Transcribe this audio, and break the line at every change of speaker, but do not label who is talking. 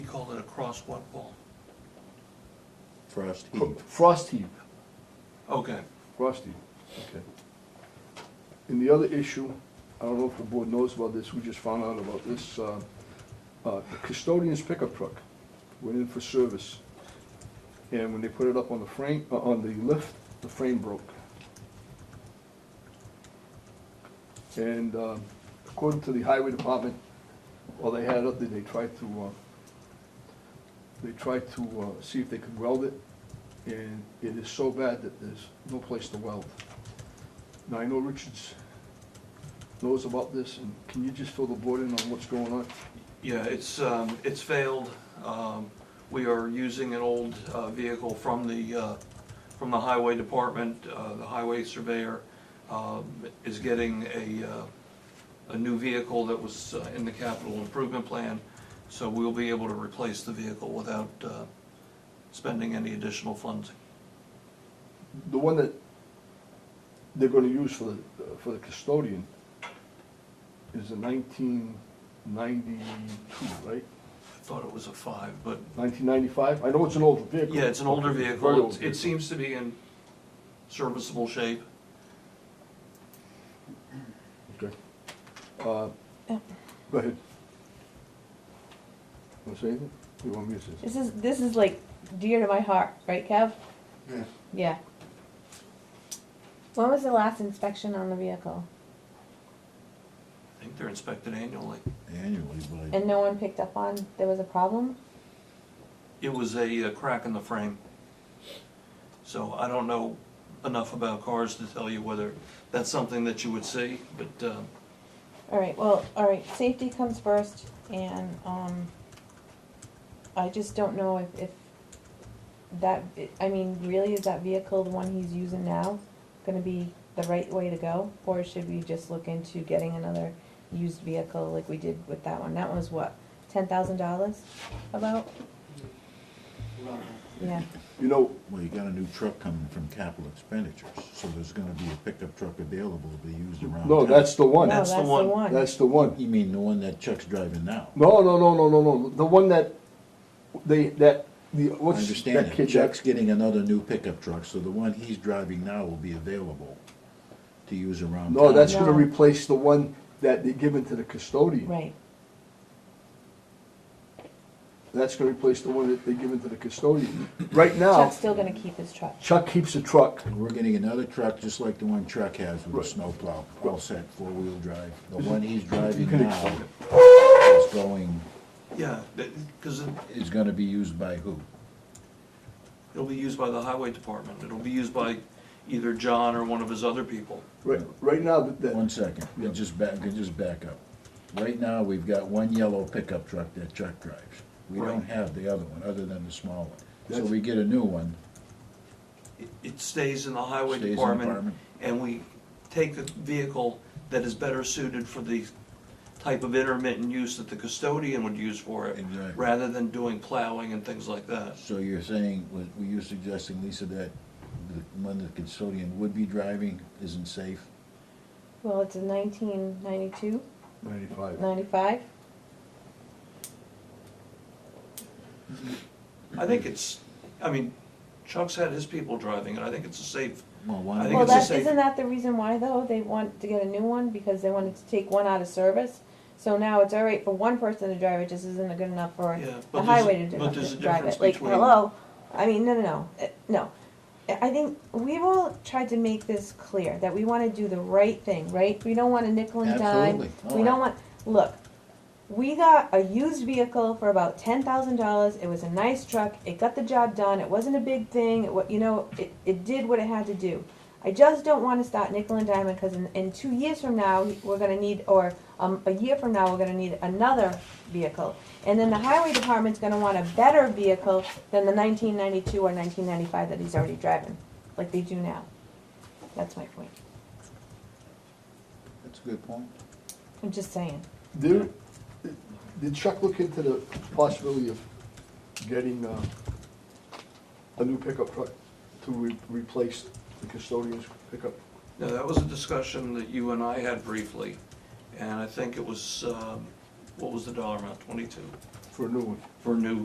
called it a crosswalk pole.
Frost
Fro-
heave.
Frost heave,
Okay.
frost heave.
Okay.
And the other issue, I don't know if the board knows about this, we just found out about this, uh, uh, the custodian's pickup truck went in for service. And when they put it up on the frame, uh, on the lift, the frame broke. And uh, according to the highway department, while they had it up there, they tried to, uh, they tried to uh, see if they could weld it. And it is so bad that there's no place to weld. Now, I know Richards knows about this, and can you just fill the board in on what's going on?
Yeah, it's, um, it's failed. Um, we are using an old, uh, vehicle from the, uh, from the highway department, uh, the highway surveyor, um, is getting a, uh, a new vehicle that was uh, in the capital improvement plan. So we'll be able to replace the vehicle without, uh, spending any additional funds.
The one that they're gonna use for the, uh, for the custodian is a nineteen ninety-two, right?
I thought it was a five, but
Nineteen ninety-five? I know it's an older vehicle.
Yeah, it's an older
Very old
vehicle. It- It
vehicle.
seems to be in serviceable shape.
Okay. Uh, Go ahead. Want to say anything? You want me to say something?
This is this is like dear to my heart, right, Kev?
Yeah.
Yeah. When was the last inspection on the vehicle?
I think they're inspected annually.
Annually, but I,
And no one picked up on there was a problem?
It was a uh, crack in the frame. So I don't know enough about cars to tell you whether that's something that you would see, but um,
Alright, well, alright, safety comes first and um I just don't know if, if that I mean, really is that vehicle the one he's using now gonna be the right way to go? Or should we just look into getting another used vehicle like we did with that one? That one was what, ten thousand dollars about? Yeah,
You know,
well, you got a new truck coming from capital expenditures, so there's gonna be a pickup truck available to be used around.
no,
town.
that's the one.
no,
That's
Oh, that's
the
the
one.
one.
That's the one.
You mean the one that Chuck's driving now?
No, no, no, no, no, no. The one that they that the
I
what's
understand
that
that
kid
Chuck's
that
getting another new pickup truck, so the one he's driving now will be available to use around.
No,
town.
that's gonna
No.
replace the one that they given to the custodian.
Right,
That's gonna replace the one that they given to the custodian. Right now,
Chuck's still gonna keep his truck.
Chuck keeps a truck.
And We're getting another truck, just like the one Chuck has with
Right.
a snowplow, all set, four-wheel drive. The one he's driving
can
now
explain
is going,
yeah, because
is gonna be used by who?
it'll be used by the highway department. It'll be used by either John or one of his other people.
Right, right now, that-
One
that,
second, we just back, we just back up. Right now, we've got one yellow pickup truck that Chuck drives. We don't
Right.
have the other one, other than the small one. So
That's-
we get a new one,
It- It stays in the highway
Stays in the
department,
department.
and we take a vehicle that is better suited for the type of intermittent use that the custodian would use for it,
Exactly.
rather than doing plowing and things like that.
so you're saying, were were you suggesting, Lisa, that the one the custodian would be driving isn't safe?
Well, it's a nineteen ninety-two,
ninety-five.
ninety-five,
I think it's, I mean, Chuck's had his people driving it, I think it's a safe,
Well,
I
why
think
Well,
not?
it's a
that,
safe-
isn't that the reason why though, they want to get a new one, because they wanted to take one out of service? So now it's all right for one person to drive it, just isn't good enough for
Yeah, but
the
there's a-
highway to do-
but there's a
to drive
difference
it, like,
between-
hello? I mean, no, no, no, eh, no. I I think we've all tried to make this clear, that we wanna do the right thing, right? We don't want a nickel and dime.
Absolutely.
We don't want, look, we got a used vehicle for about ten thousand dollars. It was a nice truck. It got the job done. It wasn't a big thing. It, wa- you know, it, it did what it had to do. I just don't want to start nickel and diamond because in, in two years from now we're gonna need, or um, a year from now we're gonna need another vehicle, and then the highway department's gonna want a better vehicle than the nineteen ninety-two or nineteen ninety-five that he's already driving, like they do now. That's my point.
That's a good point.
I'm just saying.
Did, did Chuck look into the possibility of getting, uh, a new pickup truck to re- replace the custodian's pickup?
no, that was a discussion that you and I had briefly, and I think it was, um, what was the dollar amount, twenty-two,
for a new one.
for new